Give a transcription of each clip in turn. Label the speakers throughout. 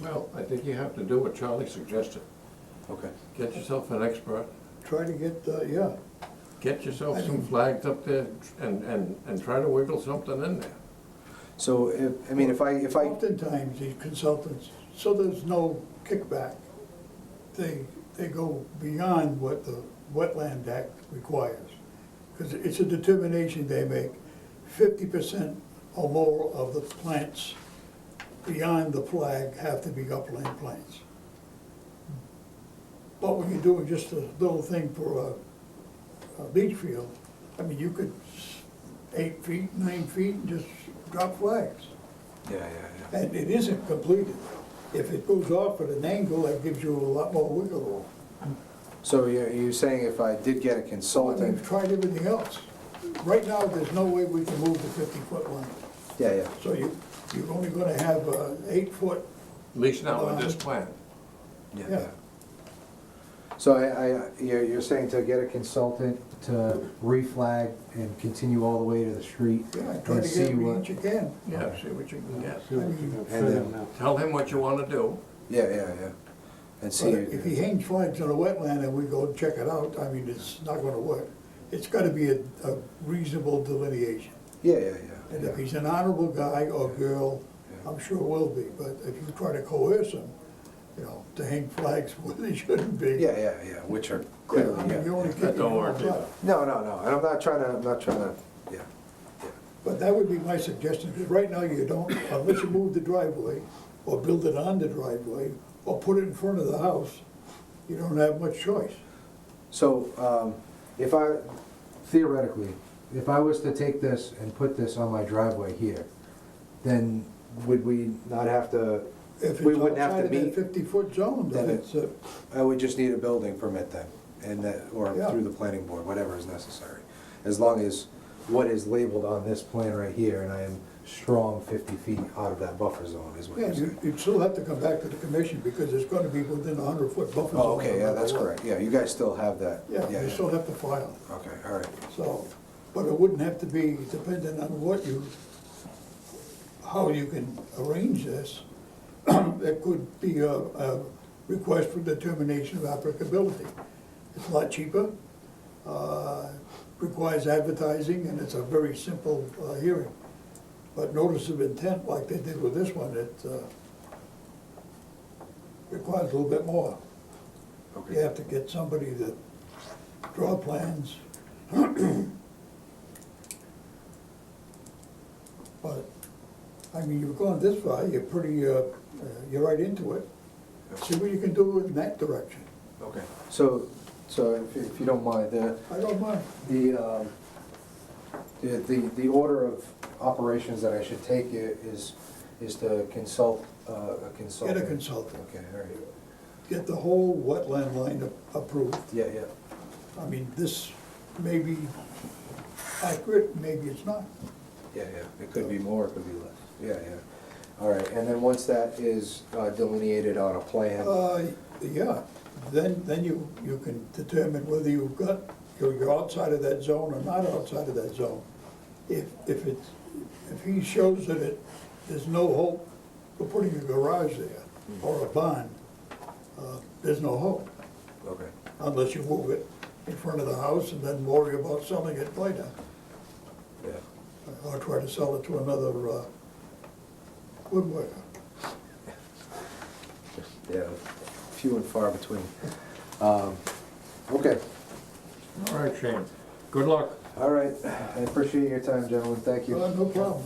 Speaker 1: Well, I think you have to do what Charlie suggested.
Speaker 2: Okay.
Speaker 1: Get yourself an expert,
Speaker 3: Try to get, uh, yeah,
Speaker 1: get yourself some flags up there and, and, and try to wiggle something in there.
Speaker 2: So, if- I mean, if I, if I,
Speaker 3: oftentimes these consultants, so there's no kickback. They, they go beyond what the Wetland Act requires. Because it's a determination they make, fifty percent or more of the plants beyond the flag have to be upland plants. But when you're doing just a little thing for a, a beach field, I mean, you could s- eight feet, nine feet, and just drop flags.
Speaker 2: yeah, yeah, yeah.
Speaker 3: And it isn't completed. If it goes off at an angle, that gives you a lot more wiggle room.
Speaker 2: So you're, you're saying if Oh, I did get a
Speaker 3: But We've
Speaker 2: consultant,
Speaker 3: tried everything else. Right now, there's no way we can move the 50-foot line.
Speaker 2: yeah, yeah,
Speaker 3: So you, you're only gonna have uh, an eight-foot,
Speaker 1: At least now with this plan.
Speaker 2: yeah,
Speaker 3: Yeah.
Speaker 2: yeah. So I, I, you're, you're saying to get a consultant to reflag and continue all the way to the street
Speaker 3: yeah, try
Speaker 2: and
Speaker 3: to get
Speaker 2: see
Speaker 3: every
Speaker 2: what?
Speaker 3: inch you can.
Speaker 1: Yeah, see what you can get.
Speaker 4: See what you can
Speaker 2: And
Speaker 4: fit
Speaker 2: then-
Speaker 4: in there.
Speaker 1: Tell him what you wanna do.
Speaker 2: Yeah, yeah, yeah. And
Speaker 3: But
Speaker 2: see,
Speaker 3: if he hangs flags on a wetland and we go and check it out, I mean, it's not gonna work. It's gotta be a a reasonable delineation.
Speaker 2: yeah, yeah,
Speaker 3: And
Speaker 2: yeah,
Speaker 3: if
Speaker 2: yeah.
Speaker 3: he's an honorable guy or girl,
Speaker 2: Yeah.
Speaker 3: I'm sure will be, but if you try to coerce him, you know, to hang flags where they shouldn't be.
Speaker 2: Yeah, yeah, yeah, which are
Speaker 3: Yeah,
Speaker 2: clearly,
Speaker 3: I mean, you
Speaker 2: yeah.
Speaker 3: only
Speaker 2: yeah.
Speaker 3: kick it
Speaker 1: That don't
Speaker 3: all
Speaker 1: work
Speaker 3: up.
Speaker 1: either.
Speaker 2: No, no, no, and I'm not trying to, I'm not trying to, yeah, yeah.
Speaker 3: But that would be my suggestion, because right now you don't, unless you move the driveway, or build it on the driveway, or put it in front of the house, you don't have much choice.
Speaker 2: So, um, if I,
Speaker 4: Theoretically, if I was to take this and put this on my driveway here,
Speaker 2: then would we not have to,
Speaker 3: If
Speaker 2: we wouldn't have to
Speaker 3: It's
Speaker 2: meet,
Speaker 3: outside of that fifty-foot zone, then
Speaker 2: Then it-
Speaker 3: it's, uh,
Speaker 2: I would just need a building permit then, and that, or
Speaker 3: Yeah.
Speaker 2: through the planning board, whatever is necessary. As long as what is labeled on this plan right here, and I am strong fifty feet out of that buffer zone is what
Speaker 3: yeah,
Speaker 2: you're
Speaker 3: you-
Speaker 2: saying.
Speaker 3: you'd still have to come back to the commission, because it's gonna be within a hundred-foot buffer zone.
Speaker 2: Oh, okay,
Speaker 3: no
Speaker 2: yeah,
Speaker 3: matter
Speaker 2: that's
Speaker 3: what.
Speaker 2: correct, yeah, you guys still have that.
Speaker 3: Yeah, you still have to file.
Speaker 2: Okay, all right,
Speaker 3: So, but it wouldn't have to be dependent on what you, how you can arrange this. It could be a, a request for determination of applicability. It's a lot cheaper, uh, requires advertising, and it's a very simple uh, hearing. But notice of intent, like they did with this one, it uh, requires a little bit more. You
Speaker 2: okay,
Speaker 3: have to get somebody that draw plans. But, I mean, you've gone this far, you're pretty, uh, uh, you're right into it. See what you can do in that direction.
Speaker 2: okay. So, so if, if you don't mind, the,
Speaker 3: I don't mind.
Speaker 2: The, um, the, the the order of operations that I should take i- is, is to consult uh, a consultant.
Speaker 3: Get a consultant,
Speaker 2: Okay, all right.
Speaker 3: get the whole wetland line a- approved.
Speaker 2: Yeah, yeah,
Speaker 3: I mean, this may be accurate, maybe it's not.
Speaker 2: yeah, yeah. It could be more, it could be less. Yeah, yeah. All right, and then once that is uh, delineated on a plan,
Speaker 3: Uh, yeah, then, then you, you can determine whether you've got, you're you're outside of that zone or not outside of that zone. If, if it's, if he shows that it, there's no hope for putting a garage there or a barn, uh, there's no hope,
Speaker 2: okay,
Speaker 3: unless you move it in front of the house and then worry about selling it later,
Speaker 2: yeah.
Speaker 3: or try to sell it to another, uh, woodworker.
Speaker 2: Yeah, few and far between. Um, Okay,
Speaker 1: All right, Shane. Good luck.
Speaker 2: all right. I appreciate your time, gentlemen. Thank you.
Speaker 3: Uh, no problem.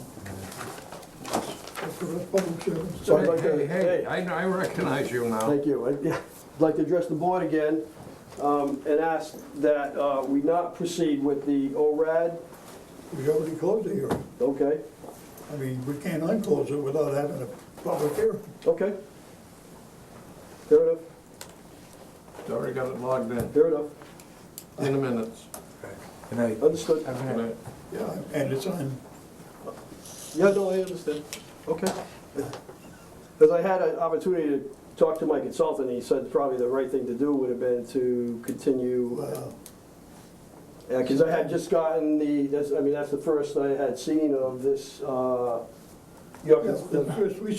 Speaker 3: That's the public service.
Speaker 5: So I'd like to-
Speaker 1: Hey, hey, I, I recognize you now.
Speaker 5: Thank you. I'd yeah, I'd like to address the board again um, and ask that uh, we not proceed with the ORAD,
Speaker 3: We already closed the hearing.
Speaker 5: okay?
Speaker 3: I mean, we can't unclose it without having a public hearing.
Speaker 5: Okay. Fair enough,
Speaker 1: Already got it logged in,
Speaker 5: fair enough,
Speaker 1: in the minutes.
Speaker 2: Good night.
Speaker 5: understood.
Speaker 1: Good night.
Speaker 3: Yeah, and it's on,
Speaker 5: Yeah, no, I understand, okay. Because I had an opportunity to talk to my consultant, he said probably the right thing to do would have been to continue
Speaker 3: uh,
Speaker 5: Yeah, because I had just gotten the, that's, I mean, that's the first I had seen of this, uh, York-
Speaker 3: yeah, the first we